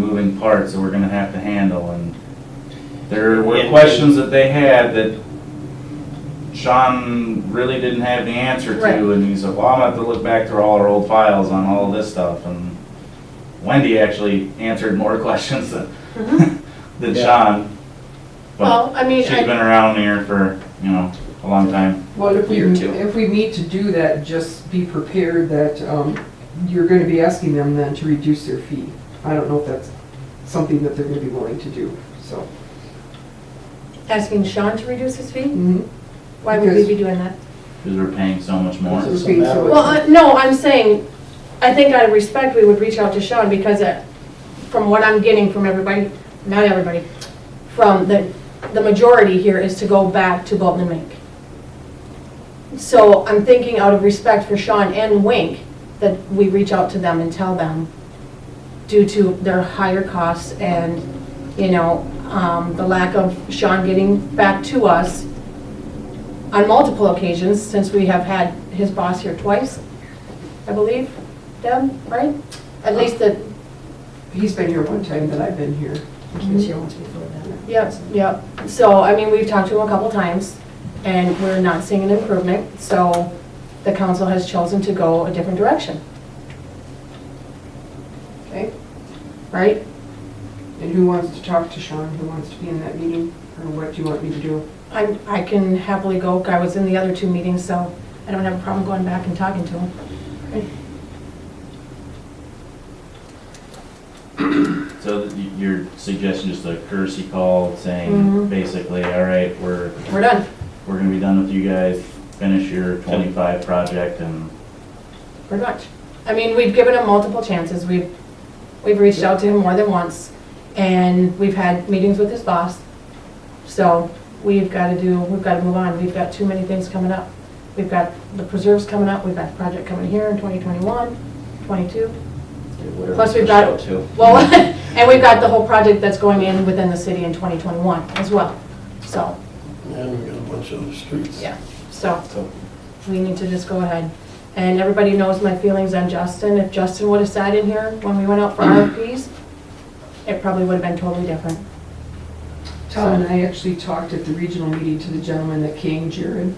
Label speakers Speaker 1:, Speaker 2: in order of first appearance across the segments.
Speaker 1: moving parts that we're gonna have to handle, and there were
Speaker 2: Yeah.
Speaker 1: questions that they had that Sean really didn't have the answer
Speaker 3: Right.
Speaker 1: to, and he said, well, I'm gonna have to look back through all our old files on all this stuff, and Wendy actually answered more questions than, than
Speaker 4: Yeah.
Speaker 1: Sean. But
Speaker 3: Mm-hmm. Well, I mean,
Speaker 1: she's been
Speaker 3: I,
Speaker 1: around here for, you know, a long time.
Speaker 5: Well, if we,
Speaker 2: Year two.
Speaker 5: if we need to do that, just be prepared that um, you're going to be asking them then to reduce their fee. I don't know if that's something that they're going to be willing to do, so.
Speaker 3: asking Sean to reduce his fee,
Speaker 5: mhm.
Speaker 3: why would we be doing that?
Speaker 1: Because we're paying so much more.
Speaker 4: This is
Speaker 5: Okay,
Speaker 4: a
Speaker 5: so-
Speaker 4: matter
Speaker 3: Well,
Speaker 4: of-
Speaker 3: I- no, I'm saying, I think out of respect, we would reach out to Sean because uh, from what I'm getting from everybody, not everybody, from the, the majority here is to go back to Bolton and Mink. So I'm thinking out of respect for Sean and Wink, that we reach out to them and tell them due to their higher costs and, you know, um, the lack of Sean getting back to us on multiple occasions, since we have had his boss here twice, I believe, Deb, right? At least that,
Speaker 5: He's been here one time that I've been here.
Speaker 3: yep, yep. So, I mean, we've talked to him a couple times, and we're not seeing an improvement, so the council has chosen to go a different direction.
Speaker 5: Okay.
Speaker 3: Right?
Speaker 5: And who wants to talk to Sean? Who wants to be in that meeting? Or what do you want me to do?
Speaker 3: I, I can happily go, I was in the other two meetings, so I don't have a problem going back and talking to him.
Speaker 1: So th- y- your suggestion, just a courtesy call saying,
Speaker 3: Mhm.
Speaker 1: basically, all right, we're,
Speaker 3: We're done,
Speaker 1: we're gonna be done with you guys, finish your twenty-five project and,
Speaker 3: pretty much. I mean, we've given him multiple chances, we've, we've reached out to him more than once, and we've had meetings with his boss. So we've got to do, we've got to move on, we've got too many things coming up. We've got the preserves coming up, we've got the project coming here in 2021, 22.
Speaker 2: Whatever
Speaker 3: Plus we've
Speaker 2: pushed
Speaker 3: got-
Speaker 2: out to.
Speaker 3: Well, and we've got the whole project that's going in within the city in 2021 as well, so.
Speaker 4: And we got a bunch of streets.
Speaker 3: Yeah, so, we need to just go ahead. And everybody knows my feelings on Justin. If Justin would have sat in here when we went out for
Speaker 5: Mm-hmm.
Speaker 3: RFPs, it probably would have been totally different.
Speaker 5: Tom and I actually talked at the regional meeting to the gentleman that came, Jared.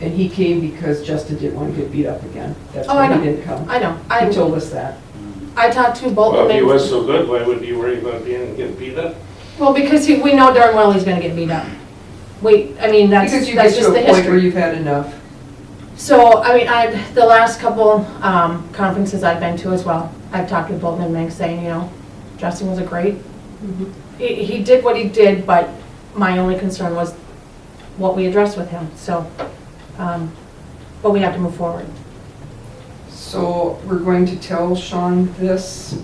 Speaker 5: And he came because Justin didn't want to get beat up again. That's
Speaker 3: Oh, I
Speaker 5: why he
Speaker 3: know.
Speaker 5: didn't come.
Speaker 3: I know,
Speaker 5: He
Speaker 3: I,
Speaker 5: told us that.
Speaker 3: I talked to
Speaker 6: Well,
Speaker 3: Bolton.
Speaker 6: if he
Speaker 3: Mink-
Speaker 6: was so good, why would you worry about being, getting beat up?
Speaker 3: Well, because he, we know darn well he's gonna get beat up. We, I mean, that's,
Speaker 5: Because you get
Speaker 3: that's
Speaker 5: to
Speaker 3: just
Speaker 5: a
Speaker 3: the
Speaker 5: point where
Speaker 3: history.
Speaker 5: you've had enough.
Speaker 3: So, I mean, I, the last couple, um, conferences I've been to as well, I've talked with Bolton and Mink saying, you know, Justin was a great he, he did what he did, but my only concern was what we addressed with him, so, um, but we have to move forward.
Speaker 5: So we're going to tell Sean this?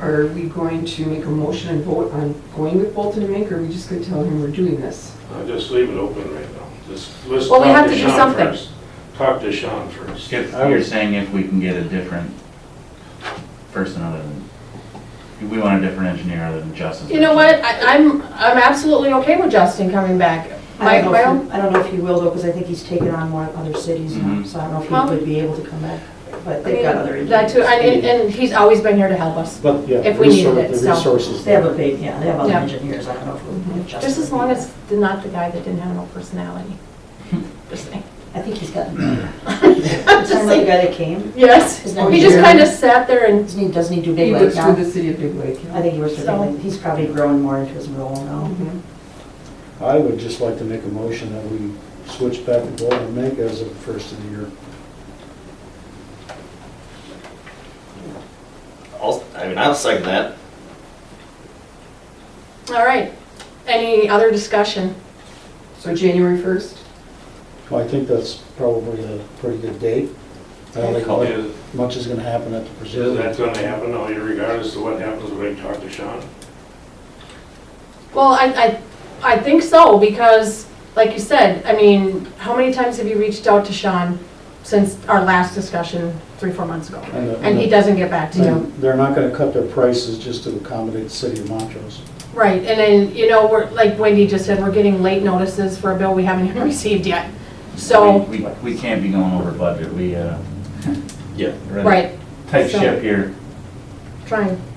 Speaker 5: Are we going to make a motion and vote on going with Bolton and Mink, or are we just gonna tell him we're doing this?
Speaker 6: I'll just leave it open right now. Just, let's
Speaker 3: Well,
Speaker 6: talk
Speaker 3: we have
Speaker 6: to
Speaker 3: to do
Speaker 6: Sean
Speaker 3: something.
Speaker 6: first. Talk to Sean first.
Speaker 1: if,
Speaker 4: I
Speaker 1: you're
Speaker 4: would-
Speaker 1: saying if we can get a different person other than, we want a different engineer other than Justin.
Speaker 3: You know what, I, I'm, I'm absolutely okay with Justin coming back.
Speaker 7: I
Speaker 3: My,
Speaker 7: don't
Speaker 3: my
Speaker 7: know if
Speaker 3: own,
Speaker 7: he- I don't know if he will though, because I think he's taken on more other cities now,
Speaker 1: Mhm.
Speaker 7: so I don't know if
Speaker 3: Well-
Speaker 7: he would be able to come back, but
Speaker 3: I
Speaker 7: they've
Speaker 3: mean,
Speaker 7: got other
Speaker 3: that too,
Speaker 7: engineers.
Speaker 3: and, and- and he's always been here to help us,
Speaker 4: But, yeah.
Speaker 3: If we needed it,
Speaker 4: resor-
Speaker 3: so.
Speaker 4: The resources.
Speaker 7: They have a big, yeah, they have other
Speaker 3: Yeah. Mm-hmm.
Speaker 7: engineers, I don't know if it would just.
Speaker 3: just as long as they're not the guy that didn't have no personality.
Speaker 7: Hmm.
Speaker 3: Just saying.
Speaker 7: I think he's gotten better.
Speaker 3: I'm just
Speaker 7: Remember the
Speaker 3: saying,
Speaker 7: guy that came?
Speaker 3: yes,
Speaker 7: His name
Speaker 3: he
Speaker 7: is
Speaker 3: just
Speaker 7: Jeremy.
Speaker 3: kinda sat there and,
Speaker 7: Doesn't he, doesn't he do
Speaker 5: He
Speaker 7: big lake
Speaker 5: works for
Speaker 7: now?
Speaker 5: the city of Big Lake. yeah.
Speaker 7: I think he works for big
Speaker 3: So-
Speaker 7: lake, he's probably growing more into his role now.
Speaker 5: Mhm.
Speaker 4: I would just like to make a motion that we switch back to Bolton and Mink as of the first of the year.
Speaker 2: I'll, I mean, I'll second that.
Speaker 3: all right. Any other discussion?
Speaker 5: So January first?
Speaker 4: I think that's probably a pretty good date. I don't think much-
Speaker 6: Is,
Speaker 4: much is gonna happen at the
Speaker 6: is that
Speaker 4: preserve.
Speaker 6: gonna happen, though, regardless of what happens when I talk to Sean?
Speaker 3: Well, I, I, I think so, because, like you said, I mean, how many times have you reached out to Sean since our last discussion, three, four months ago?
Speaker 4: And the-
Speaker 3: And he doesn't get back to you.
Speaker 4: And They're not gonna cut their prices just to accommodate the city of Montrose.
Speaker 3: Right, and then, you know, we're, like Wendy just said, we're getting late notices for a bill we haven't even received yet. So,
Speaker 1: We, we- we can't be going over budget, we, uh.
Speaker 2: Yeah.
Speaker 1: we're in a
Speaker 3: right,
Speaker 1: Tight
Speaker 3: So-
Speaker 1: ship here.
Speaker 3: trying,